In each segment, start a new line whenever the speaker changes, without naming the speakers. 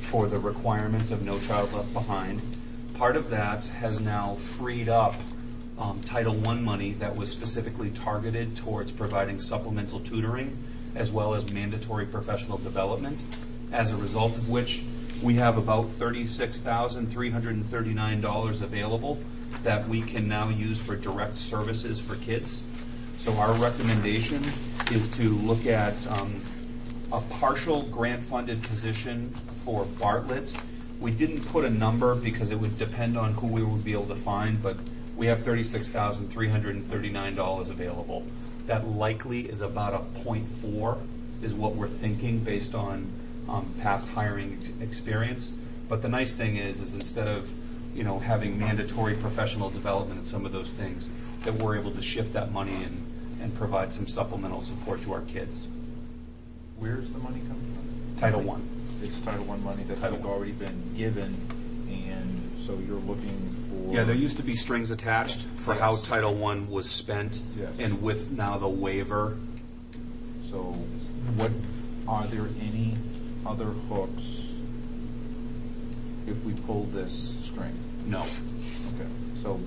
for the requirements of No Child Left Behind. Part of that has now freed up um, Title I money that was specifically targeted towards providing supplemental tutoring as well as mandatory professional development, as a result of which we have about $36,339 available that we can now use for direct services for kids. So our recommendation is to look at um, a partial grant-funded position for Bartlett. We didn't put a number because it would depend on who we would be able to find, but we have $36,339 available. That likely is about a .4 is what we're thinking based on um, past hiring ex- experience. But the nice thing is, is instead of, you know, having mandatory professional development and some of those things, that we're able to shift that money and, and provide some supplemental support to our kids.
Where's the money coming
Title One.
from? It's Title I money that
Title
has
I.
already been given, and so you're looking for.
Yeah, there used to be strings attached for how
Yes.
Title One was spent.
Yes.
And with now the waiver,
So what, are there any other hooks if we pull this string?
no.
Okay, so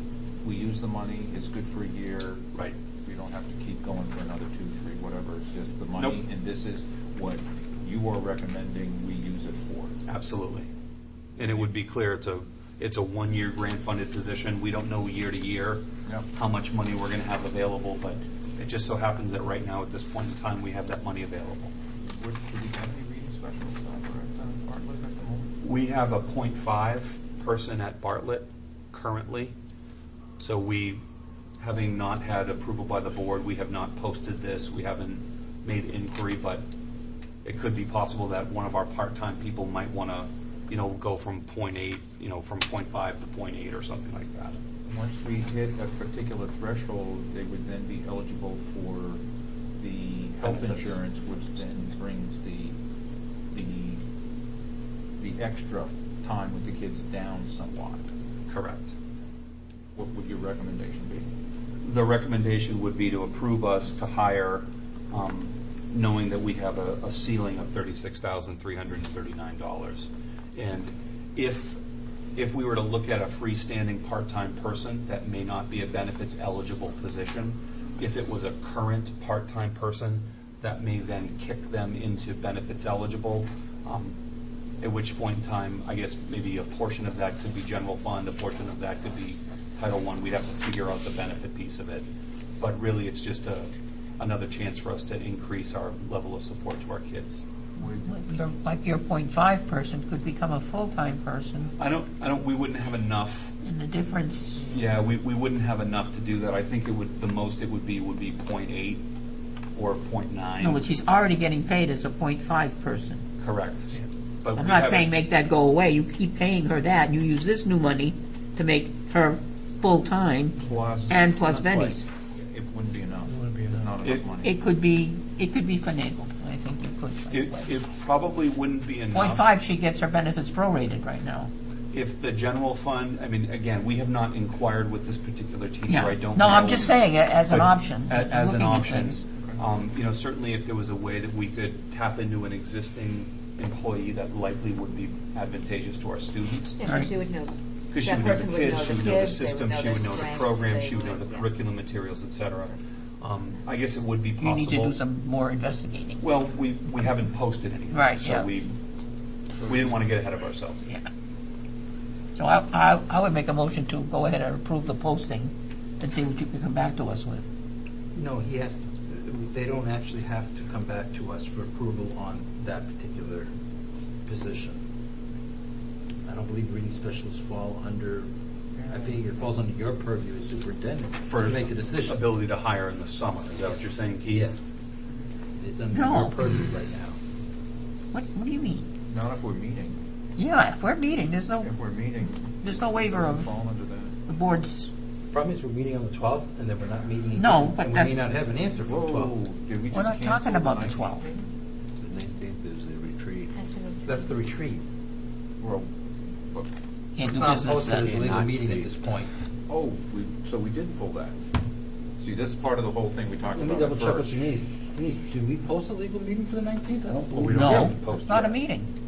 we use the money, it's good for a year.
Right.
We don't have to keep going for another two, three, whatever, it's just the money,
Nope.
and this is what you are recommending we use it for.
Absolutely. And it would be clear, it's a, it's a one-year grant-funded position. We don't know year to year
Yep.
how much money we're going to have available, but it just so happens that right now, at this point in time, we have that money available.
Would, do we have any reading specialists on at uh, Bartlett at the moment?
We have a .5 person at Bartlett currently. So we, having not had approval by the board, we have not posted this, we haven't made inquiry, but it could be possible that one of our part-time people might want to, you know, go from .8, you know, from .5 to .8 or something like that.
Once we hit a particular threshold, they would then be eligible for the health
Benefits.
insurance, which then brings the, the, the extra time with the kids down somewhat.
Correct.
What would your recommendation be?
The recommendation would be to approve us to hire, um, knowing that we have a a ceiling of $36,339. And if, if we were to look at a freestanding part-time person, that may not be a benefits eligible position. If it was a current part-time person, that may then kick them into benefits eligible, um, at which point in time, I guess maybe a portion of that could be general fund, a portion of that could be Title One. We'd have to figure out the benefit piece of it. But really, it's just a, another chance for us to increase our level of support to our kids.
Your- Like your point five person could become a full-time person,
I don't, I don't, we wouldn't have enough,
and the difference,
yeah, we, we wouldn't have enough to do that. I think it would, the most it would be, would be point eight or point nine.
no, but she's already getting paid as a point five person.
Correct. But
I'm
we
not
haven't-
saying make that go away, you keep paying her that, you use this new money to make her full-time,
Plus.
And plus
Not
Benny's.
quite. It wouldn't be enough. It wouldn't be enough. Not
It-
enough money.
it could be, it could be finagled, I think it could.
It,
finagle.
it probably wouldn't be enough.
Point five, she gets her benefits prorated right now.
if the general fund, I mean, again, we have not inquired with this particular teacher,
Yeah.
I don't know.
No, I'm just saying, a- as an
But
option,
a- As an
looking at
option,
things.
um, you know, certainly if there was a way that we could tap into an existing employee, that likely would be advantageous to our students.
Yeah, she would know.
Because she
that
would know
person
the kids, she would know the
kids, they
system, she
their
would know the
strengths,
program,
they
she would know the
yeah.
curriculum materials, et cetera. Um, I guess it would be possible.
You need to do some more investigating.
Well, we, we haven't posted anything.
Right, yeah.
So we, we didn't want to get ahead of ourselves.
Yeah. So I, I, I would make a motion to go ahead and approve the posting and see what you can come back to us with.
No, he has, they don't actually have to come back to us for approval on that particular position. I don't believe reading specialists fall under, I think it falls under your purview as superintendent
for
to make a decision.
Ability to hire in the summer, is that what you're saying, Keith?
Yes. It's under
No.
your purview right now.
What, what do you mean?
Not if we're meeting.
Yeah, if we're meeting, there's no,
If we're meeting.
there's no waiver
doesn't
of
Fall under that.
the board's,
Problem is, we're meeting on the 12th, and then we're not meeting again.
No, but
And we
that's-
may not have an answer for the 12th.
Did we just
we're not
cancel
talking about the
19th?
12th.
The nineteenth is the retreat.
That's a good-
That's the retreat.
Well, but-
Can't
It's
do
not
business
posted as a
then.
legal meeting at this point.
Oh, we, so we did pull that. See, this is part of the whole thing we talked
Let me
about
double
at
check with
first.
Denise. Denise, did we post a legal meeting for the 19th? I don't believe
we
we
don't
did.
have
No,
to post
it's not a
yet.
meeting.